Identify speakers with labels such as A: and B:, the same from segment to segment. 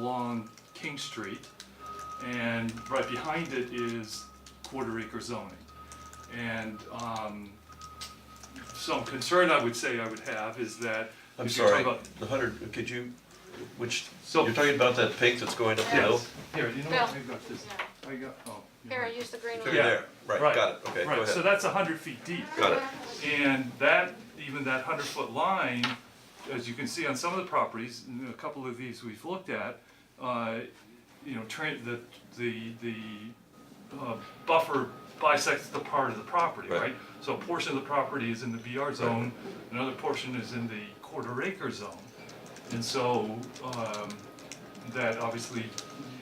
A: along King Street, and right behind it is quarter acre zoning. And um, some concern I would say I would have is that
B: I'm
A: if you're talking
B: sorry,
A: about.
B: the hundred, could you, which,
A: So-
B: you're talking about that pig that's going up the hill?
A: Yes, here, you know
C: Bill.
A: what, I've got this, I got, oh. you're
C: Here,
A: right.
C: use the green
B: Through
C: one.
A: Yeah.
B: there, right, got it, okay, go
A: Right, so
B: ahead,
A: that's hundred feet deep.
B: got it.
A: And that, even that hundred foot line, as you can see on some of the properties, and a couple of these we've looked at, uh, you know, tran the, the, the, uh, buffer bisects the part of the property,
B: Right.
A: right? So a portion of the property is in the BR zone, another portion is in the quarter acre zone. And so, um, that obviously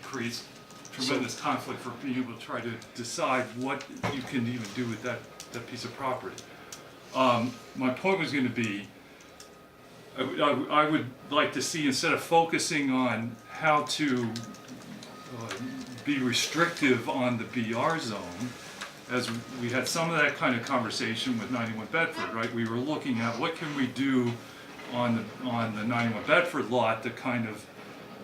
A: creates tremendous conflict for being able to try to decide what you can even do with that, that piece of property. Um, my point was gonna be, I, would- I would- I would like to see, instead of focusing on how to uh, be restrictive on the BR zone, as we had some of that kind of conversation with 91 Bedford, right? We were looking at what can we do on the, on the 91 Bedford lot to kind of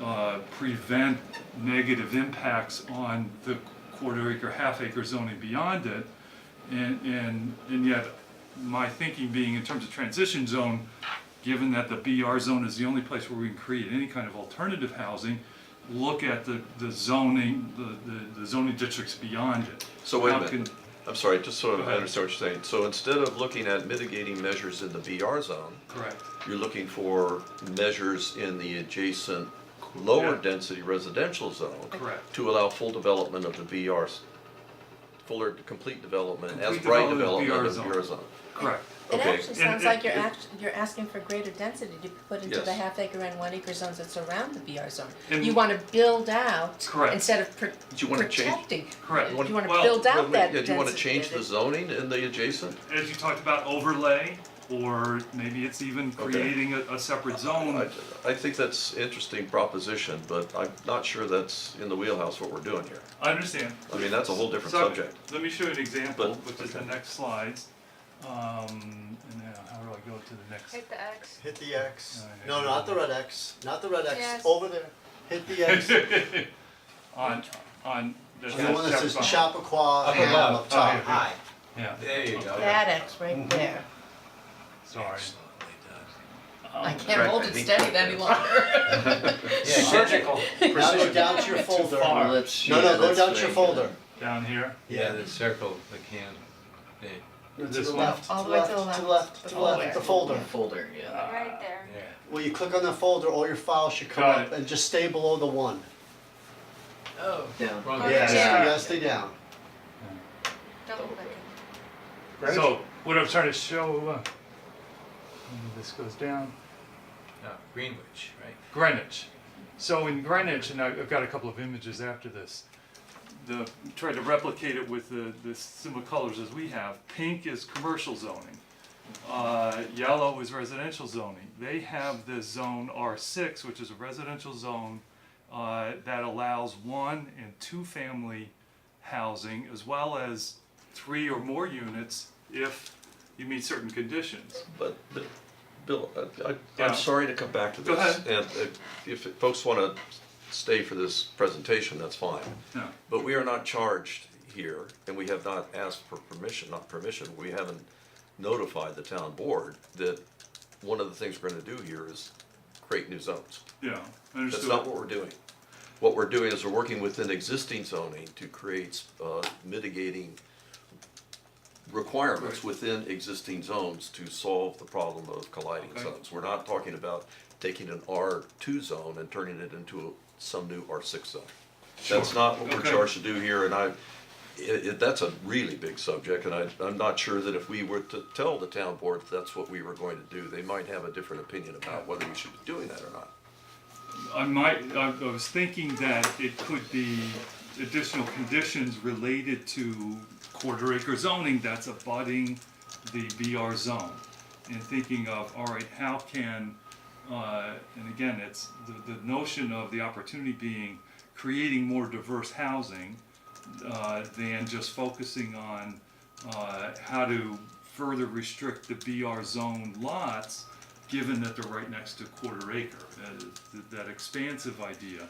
A: uh, prevent negative impacts on the quarter acre, half acre zoning beyond it. And, and, and yet, my thinking being in terms of transition zone, given that the BR zone is the only place where we can create any kind of alternative housing, look at the, the zoning, the- the, the zoning districts beyond it.
B: So wait a
A: How
B: minute,
A: can-
B: I'm sorry, just so
A: Go
B: I
A: ahead.
B: understand what you're saying, so instead of looking at mitigating measures in the BR zone,
A: Correct.
B: you're looking for measures in the adjacent lower
A: Yeah.
B: density residential zone.
A: Correct.
B: To allow full development of the BRs, fuller, complete development, as
A: Complete
B: bright
A: development
B: development
A: of the
B: of the
A: BR
B: BR zone.
A: Correct.
D: It
B: Okay.
D: actually
A: And
D: sounds
A: it-
D: like you're
A: it-
D: act, you're asking for greater density to be put into the
B: Yes.
D: half acre and one acre zones that surround the BR zone.
A: And-
D: You wanna build out
A: Correct.
D: instead of pr-
B: Do you wanna change-
D: protecting.
A: Correct.
D: You wanna
A: Well,
B: Wait
D: build
B: a
D: out that
B: minute, yeah,
D: density.
B: do you wanna change
D: there.
B: the zoning in the adjacent?
A: As you talked about overlay, or maybe it's even
B: Okay.
A: creating a, a separate
B: I,
A: zone.
B: I think that's interesting proposition, but I'm not sure that's in the wheelhouse what we're doing here.
A: I understand.
B: I mean, that's a whole different
A: So,
B: subject.
A: Let me show you an example,
B: But-
A: which is the
B: okay.
A: next slides. Um, and now, how do I go to the next?
C: Hit the X.
E: Hit the X.
A: Alright.
E: No, not the red X. Not the red X.
C: Yes.
E: Over there. Hit the X. the
A: On, on. The
E: one that says
A: Chappaqua.
E: Chappaqua Ham up top.
A: Okay, okay.
E: Hi.
A: Yeah,
F: There you go.
D: That X
A: Mm-hmm.
D: right there.
A: sorry.
D: I
A: Um,
D: can't hold it steady that any longer.
F: Surgical.
E: Now go down to your folder. No, no, go down to your folder.
A: Down here,
F: Yeah, the circle, the can. Yeah.
E: To
A: this
E: the
A: one,
E: left, to
D: All
E: the
D: the way
E: left, to the left, to the left, the folder.
D: Folder, yeah.
C: Right there.
E: Well, you click on the folder, all your files should come
A: Got
E: up
A: it.
E: and just stay below the one.
F: Oh. Wrong.
C: Okay.
E: Yeah,
C: Yeah.
E: yeah, stay down.
C: Double click
A: so what I'm trying to show, uh, and this goes down.
F: No, Oh, Greenwich, right?
A: Greenwich. So in Greenwich, and I- I've got a couple of images after this. The, tried to replicate it with the, the similar colors as we have. Pink is commercial zoning. Uh, yellow is residential zoning. They have this zone R six, which is a residential zone, uh, that allows one and two-family housing as well as three or more units if you meet certain conditions.
B: But, but, Bill, I, I-
A: Yeah.
B: I'm sorry to come back to
A: Go
B: this. And if- if folks wanna stay for this presentation, that's fine.
A: Yeah.
B: But we are not charged here, and we have not asked for permission, not permission, we haven't notified the town board that one of the things we're gonna do here is create new zones.
A: Yeah,
B: That's
A: understood.
B: not what we're doing. What we're doing is we're working within existing zoning to create uh, mitigating requirements
A: Right.
B: within existing zones to solve the problem of colliding
A: Okay.
B: zones. We're not talking about taking an R two zone and turning it into a- some new R six zone. That's not what we're
A: Okay.
B: charged to do here, and I, it, it, that's a really big subject, and I, I'm not sure that if we were to tell the town board that's what we were going to do, they might have a different opinion about whether we should be doing that or not.
A: I might, I I was thinking that it could be additional conditions related to quarter acre zoning that's abutting the BR zone. And thinking of, all right, how can, uh, and again, it's the, the notion of the opportunity being creating more diverse housing uh, than just focusing on uh, how to further restrict the BR zone lots, given that they're right next to quarter acre. Uh, th- That expansive idea.